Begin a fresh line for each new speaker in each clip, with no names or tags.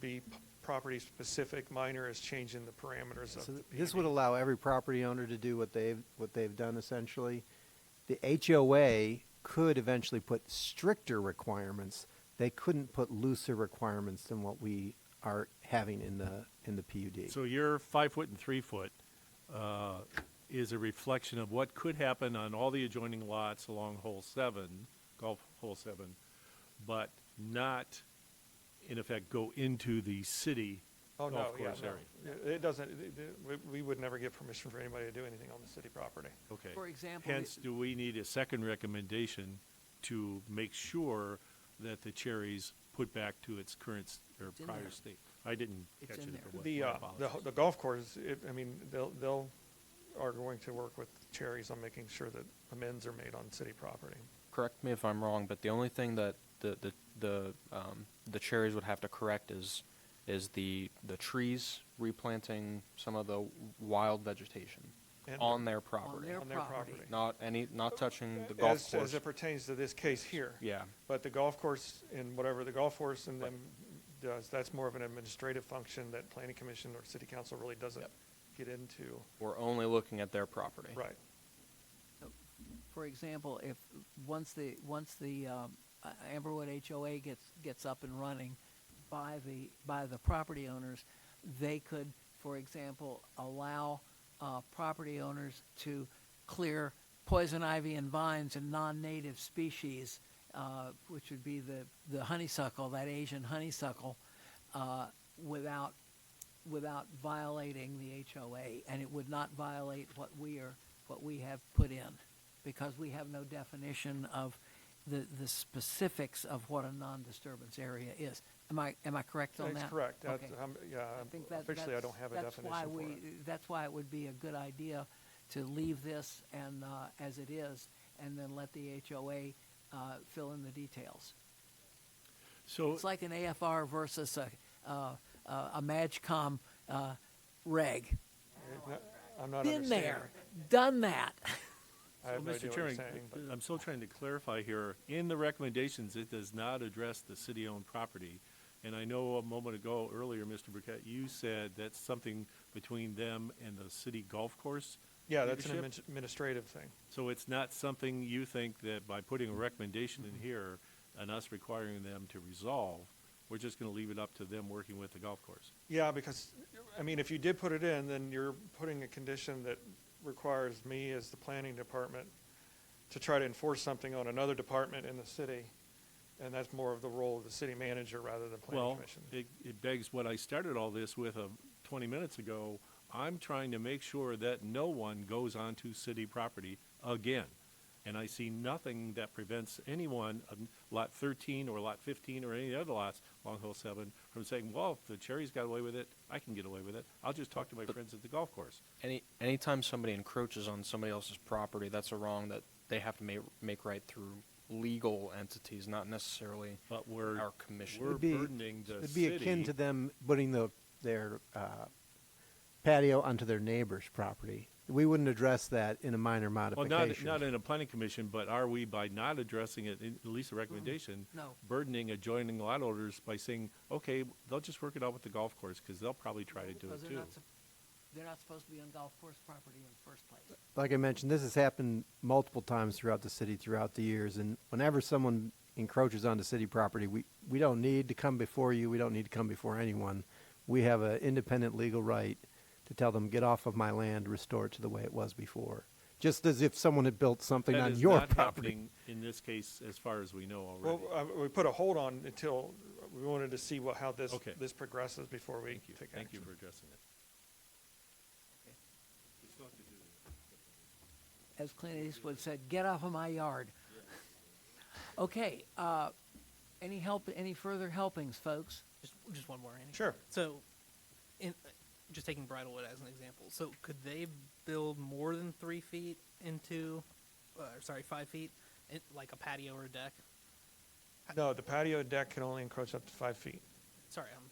be p- property-specific, minor is changing the parameters of
So
the
th- this
PUD.
would allow every property owner to do what they've, what they've done essentially. The HOA could eventually put stricter requirements. They couldn't put looser requirements than what we are having in the, in the PUD.
So your five foot and three foot uh, is a reflection of what could happen on all the adjoining lots along hole seven, golf hole seven, but not, in effect, go into the city
Oh,
golf
no, yeah,
course area.
no. It- It doesn't, it- it- we- we would never give permission for anybody to do anything on the city property.
Okay.
For example,
Hence, do we need a second recommendation to make sure that the cherries put back to its current s- or
It's in
prior
there.
state? I didn't
It's
catch it.
in
if
there.
it was.
The,
My
uh, the
apologies.
the golf course, it- I mean, they'll, they'll, are going to work with Cherries on making sure that amends are made on city property.
correct me if I'm wrong, but the only thing that the the the um, the cherries would have to correct is is the the trees replanting some of the wild vegetation
And-
on their property,
their-
On their
property.
property.
not any not touching Mm, the golf
As,
course.
as it pertains to this case here.
yeah,
But the golf course and whatever the golf course and them does, that's more of an administrative function that planning commission or city council really doesn't get into.
we're only looking at their property.
Right.
for example, if once the, once the um, uh, Amberwood HOA gets, gets up and running by the, by the property owners, they could, for example, allow uh, property owners to clear poison ivy and vines and non-native species, uh, which would be the, the honeysuckle, that Asian honeysuckle, uh, without without violating the HOA, and it would not violate what we are, what we have put in, because we have no definition of the, the specifics of what a non-disturbance area is. Am I, am I correct on that?
That's correct. That's,
Okay.
um, yeah,
I think that-
officially I
that's-
don't have a
that's
definition
why
for
we-
it.
That's why it would be a good idea to leave this and, uh, as it is, and then let the HOA, uh, fill in the details.
So,
It's like an AFR versus a, uh, uh, a MAGCOM, uh, reg.
I'm not
Been
understanding.
there, done that.
I have no idea
Well, Mr.
what you're
Chairman,
saying. but-
I'm still trying to clarify here. In the recommendations, it does not address the city-owned property. And I know a moment ago, earlier, Mr. Burkett, you said that's something between them and the city golf course.
Yeah, that's an
leadership.
admin- administrative thing.
So it's not something you think that by putting a recommendation
Mm-hmm.
in here and us requiring them to resolve, we're just going to leave it up to them working with the golf course?
Yeah, because, I mean, if you did put it in, then you're putting a condition that requires me as the planning department to try to enforce something on another department in the city, and that's more of the role of the city manager rather than planning
Well,
commission.
it, it begs what I started all this with uh, 20 minutes ago. I'm trying to make sure that no one goes onto city property again. And I see nothing that prevents anyone on Lot 13 or Lot 15 or any other lots along Hill 7 from saying, well, if the Cherries got away with it, I can get away with it. I'll just talk to my friends at the golf course.
Any anytime somebody encroaches on somebody else's property, that's a wrong that they have to make make right through legal entities, not necessarily
But we're,
our commission.
we're
It'd be-
burdening the
It'd be akin to
city.
them putting the, their uh, patio onto their neighbor's property. We wouldn't address that in a minor
Well,
modification.
not, not in a planning commission, but are we, by not addressing it, in- at least a recommendation?
no.
Burdening adjoining lot owners by saying, okay, they'll just work it out with the golf course, because they'll probably try to do it
Because they're
too.
not sup- They're not supposed to be on golf course property in the first place.
like I mentioned, this has happened multiple times throughout the city throughout the years. And whenever someone encroaches onto city property, we, we don't need to come before you. We don't need to come before anyone. We have an independent legal right to tell them, get off of my land, restore it to the way it was before. Just as if someone had built something
That
on
is
your
not
property.
happening In this case, as far as we know
Well,
already.
uh, we put a hold on until, we wanted to see what, how this,
Okay.
this progresses before we
Thank you,
take action.
thank you for addressing it.
As Clint Eastwood said, get off of my yard. Okay, uh, any help, any further helpings, folks?
Just, just one more, Annie.
Sure.
So, in, just taking Bridlewood as an example, so could they build more than three feet into, uh, sorry, five feet, in, like a patio or a deck?
No, the patio deck can only encroach up to five feet.
Sorry, I'm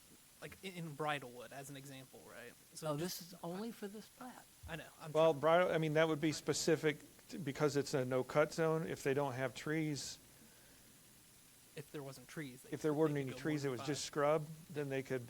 like in, in Bridlewood as an example, right?
No, Oh,
just-
this is only for this plat.
I know. I'm
Oh, Well, bridle, I mean, that would be specific t- because it's a no-cut zone. If they don't have trees,
if there wasn't trees, they
if there
could- they
weren't
could
any
go more
trees,
than
it was
five.
just scrub, then they could